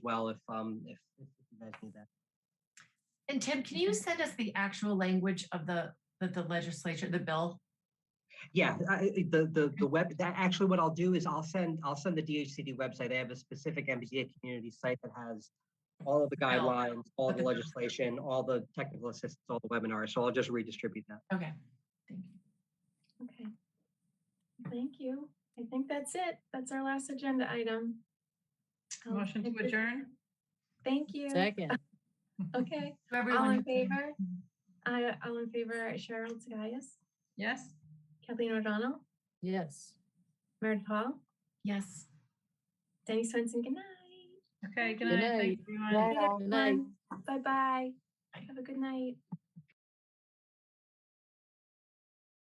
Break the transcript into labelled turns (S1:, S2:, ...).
S1: well if um if, if you guys need that.
S2: And Tim, can you send us the actual language of the, that the legislature, the bill?
S1: Yeah, I- I- the the the web. That actually, what I'll do is I'll send I'll send the DHCD website. They have a specific MBTA community site that has all of the guidelines, all the
S2: Okay.
S1: legislation, all the technical assistance, all the webinars. So I'll just redistribute that.
S2: Okay. Thank you.
S3: Okay. Thank you. I think that's it. That's our last agenda item. Um,
S4: Motion
S3: if
S4: to
S3: it-
S4: adjourn?
S3: Thank you.
S5: Second.
S3: Okay, all
S2: Everyone.
S3: in favor? I, all in favor, Cheryl Tagayas,
S4: Yes?
S3: Kathleen O'Donnell,
S5: Yes.
S3: Meredith Hall,
S2: Yes.
S3: Danny Swenson, good night.
S4: Okay, good
S5: Good
S4: night.
S5: night.
S4: Thanks, everyone.
S5: Good night.
S3: Bye bye.
S2: Bye.
S3: Have a good night.